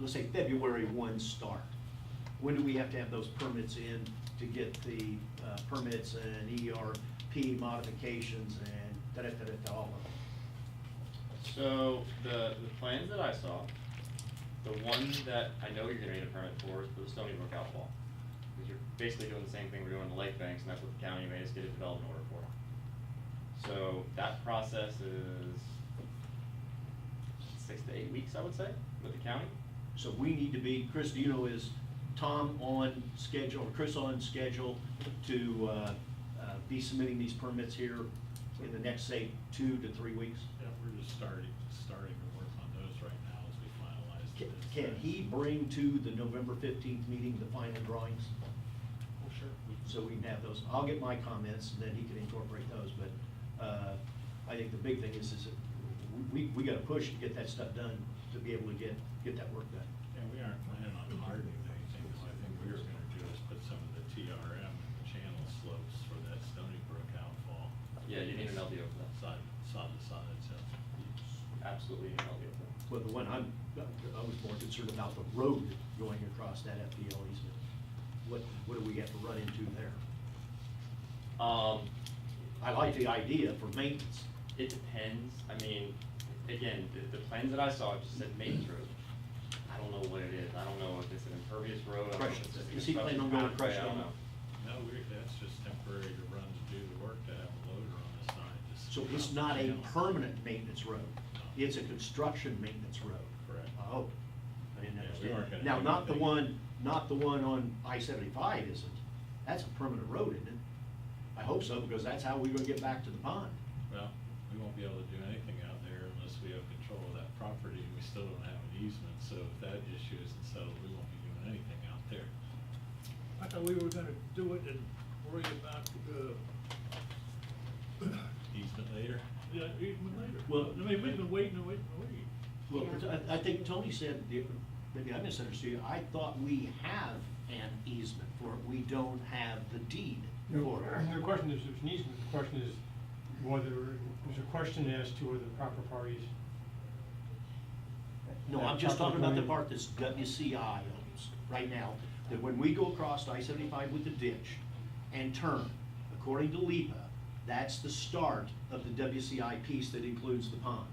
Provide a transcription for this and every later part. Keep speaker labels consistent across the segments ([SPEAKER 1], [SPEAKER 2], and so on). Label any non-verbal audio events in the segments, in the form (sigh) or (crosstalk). [SPEAKER 1] let's say February one start? When do we have to have those permits in to get the uh, permits and ERP modifications and da-da-da-da-da, all of them?
[SPEAKER 2] So the, the plans that I saw, the one that I know you're gonna need a permit for is for the Stony Brook outfall. Because you're basically doing the same thing we're doing in the lake banks, and that's what the county made us get a development order for. So that process is six to eight weeks, I would say, with the county.
[SPEAKER 1] So we need to be, Chris, do you know, is Tom on schedule, or Chris on schedule to uh, uh, be submitting these permits here in the next, say, two to three weeks?
[SPEAKER 3] Yeah, we're just starting, starting to work on those right now as we finalize
[SPEAKER 1] Ca-
[SPEAKER 3] this.
[SPEAKER 1] Can he bring to the November fifteenth meeting the final drawings?
[SPEAKER 3] Well, Oh, sure. we-
[SPEAKER 1] So we can have those, I'll get my comments, and then he can incorporate those, but uh, I think the big thing is, is that we, we- we gotta push to get that stuff done, to be able to get, get that work done.
[SPEAKER 3] Yeah, we aren't planning on hardening anything, so I think we were gonna do is put some of the TRM in the channel slopes for that Stony Brook outfall.
[SPEAKER 2] Yeah, you need an LDO for that.
[SPEAKER 3] Side, side to side, so.
[SPEAKER 2] Absolutely an LDO for that.
[SPEAKER 1] Well, the one I'm, I was more concerned about the road going across that FPL easement. What, what do we have to run into there?
[SPEAKER 2] Um,
[SPEAKER 1] I like the idea for maintenance.
[SPEAKER 2] it depends, I mean, again, the, the plans that I saw just said maintenance road. I don't know what it is, I don't know if it's an impervious road, I don't know if
[SPEAKER 1] Crushed.
[SPEAKER 2] it's just a
[SPEAKER 1] Is he planning on going
[SPEAKER 2] construction pathway, I
[SPEAKER 1] crushed
[SPEAKER 2] don't
[SPEAKER 1] on?
[SPEAKER 2] know.
[SPEAKER 3] No, we, that's just temporary to run to do the work, to have a loader on the side. just
[SPEAKER 1] So
[SPEAKER 3] to
[SPEAKER 1] it's
[SPEAKER 3] run
[SPEAKER 1] not
[SPEAKER 3] the
[SPEAKER 1] a
[SPEAKER 3] channel.
[SPEAKER 1] permanent maintenance road. It's a construction maintenance road.
[SPEAKER 3] Correct.
[SPEAKER 1] Oh, I didn't
[SPEAKER 3] Yeah, we
[SPEAKER 1] understand.
[SPEAKER 3] aren't gonna
[SPEAKER 1] Now,
[SPEAKER 3] do
[SPEAKER 1] not the
[SPEAKER 3] anything.
[SPEAKER 1] one, not the one on I seventy-five isn't. That's a permanent road, isn't it? I hope so, because that's how we're gonna get back to the pond.
[SPEAKER 3] Well, we won't be able to do anything out there unless we have control of that property, and we still don't have an easement, so if that issue isn't settled, we won't be doing anything out there.
[SPEAKER 4] I thought we were gonna do it and worry about, uh,
[SPEAKER 3] Easement later?
[SPEAKER 4] yeah, even later.
[SPEAKER 1] Well-
[SPEAKER 4] I mean, we've been waiting and waiting and waiting.
[SPEAKER 1] Well,
[SPEAKER 5] Yeah.
[SPEAKER 1] I, I think Tony said, the- maybe I misunderstood you, I thought we have an easement for it, we don't have the deed
[SPEAKER 6] No,
[SPEAKER 1] for it.
[SPEAKER 6] The question is, there's an easement, the question is whether, there's a question as to whether the proper parties.
[SPEAKER 1] No, I'm just talking about the part that's WCI owns right now, that when we go across I seventy-five with the ditch and turn, according to LEPA, that's the start of the WCI piece that includes the pond.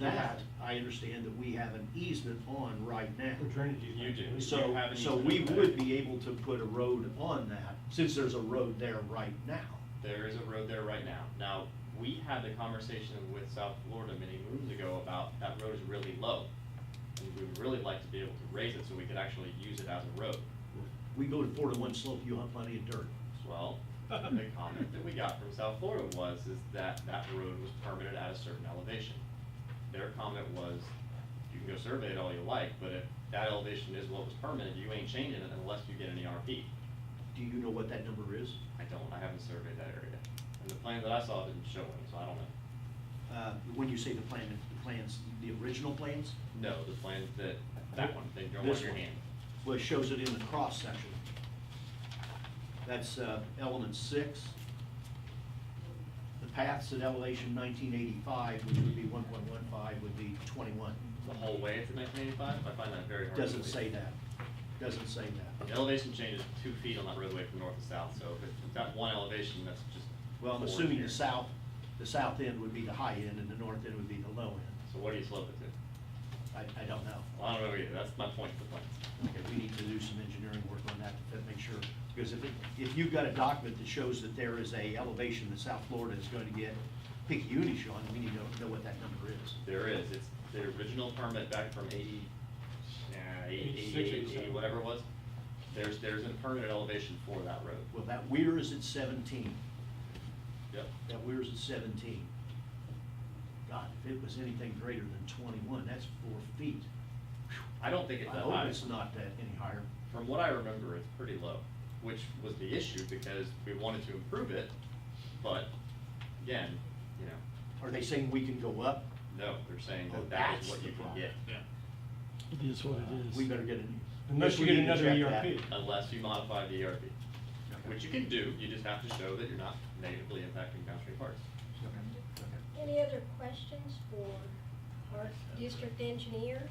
[SPEAKER 1] That, I understand that we have an easement on right now.
[SPEAKER 6] The drainage easement.
[SPEAKER 2] You do.
[SPEAKER 6] So
[SPEAKER 1] So,
[SPEAKER 2] have an
[SPEAKER 1] so
[SPEAKER 2] easement
[SPEAKER 1] we
[SPEAKER 2] over
[SPEAKER 1] would
[SPEAKER 2] there.
[SPEAKER 1] be able to put a road on that, since there's a road there right now.
[SPEAKER 2] There is a road there right now. Now, we had the conversation with South Florida many moons ago about that road is really low. And we would really like to be able to raise it so we could actually use it as a road.
[SPEAKER 1] We go to four to one slope, you have plenty of dirt.
[SPEAKER 2] Well, (laughs) the comment that we got from South Florida was, is that that road was permitted at a certain elevation. Their comment was, you can go survey it all you like, but if that elevation is what was permitted, you ain't changing it unless you get an ERP.
[SPEAKER 1] Do you know what that number is?
[SPEAKER 2] I don't, I haven't surveyed that area. And the plan that I saw didn't show any, so I don't know.
[SPEAKER 1] Uh, When you say the plan, the plans, the original plans?
[SPEAKER 2] No, the plan that, that one, that you're on
[SPEAKER 1] This
[SPEAKER 2] your
[SPEAKER 1] one.
[SPEAKER 2] hand.
[SPEAKER 1] Well, it shows it in the cross section. That's uh, element six. The paths at elevation nineteen eighty-five, which would be one point one five, would be twenty-one.
[SPEAKER 2] The whole way into nineteen eighty-five, I find that very hard. to
[SPEAKER 1] Doesn't
[SPEAKER 2] believe.
[SPEAKER 1] say that. Doesn't say that.
[SPEAKER 2] The elevation change is two feet on that roadway from north to south, so if it's that one elevation, that's just.
[SPEAKER 1] Well, I'm
[SPEAKER 2] four
[SPEAKER 1] assuming
[SPEAKER 2] here.
[SPEAKER 1] the south, the south end would be the high end and the north end would be the low end.
[SPEAKER 2] So what do you slope it to?
[SPEAKER 1] I, I don't know.
[SPEAKER 2] Well, I don't know either, that's my point, the plans.
[SPEAKER 1] Okay, we need to do some engineering work on that to make sure, because if, it- if you've got a document that shows that there is a elevation that South Florida is going to get picayunish on, we need to know what that number is.
[SPEAKER 2] There is, it's the original permit back from eighty, nah, eighty,
[SPEAKER 6] Eighty-six,
[SPEAKER 2] eighty-eight, eighty,
[SPEAKER 6] eighty-seven.
[SPEAKER 2] whatever it was. There's, there's a permitted elevation for that road.
[SPEAKER 1] Well, that weir is at seventeen.
[SPEAKER 2] Yep.
[SPEAKER 1] That weir is at seventeen. God, if it was anything greater than twenty-one, that's four feet.
[SPEAKER 2] I don't think
[SPEAKER 1] I
[SPEAKER 2] it's that high.
[SPEAKER 1] hope it's not that any higher.
[SPEAKER 2] From what I remember, it's pretty low, which was the issue because we wanted to improve it, but again, you know,
[SPEAKER 1] Are they saying we can go up?
[SPEAKER 2] no, they're saying
[SPEAKER 1] Oh,
[SPEAKER 2] that that
[SPEAKER 1] that's
[SPEAKER 2] is what
[SPEAKER 1] the
[SPEAKER 2] you can
[SPEAKER 1] problem.
[SPEAKER 2] get.
[SPEAKER 3] Yeah.
[SPEAKER 4] It is what it
[SPEAKER 1] We better get a new.
[SPEAKER 6] Unless
[SPEAKER 1] we
[SPEAKER 6] you get
[SPEAKER 1] need to
[SPEAKER 6] another E
[SPEAKER 1] check that.
[SPEAKER 6] ERP.
[SPEAKER 2] Unless you modify the ERP, which you can do, you just have to show that you're not negatively impacting downstream parts.
[SPEAKER 1] Okay, okay.
[SPEAKER 7] Any other questions for our district engineer?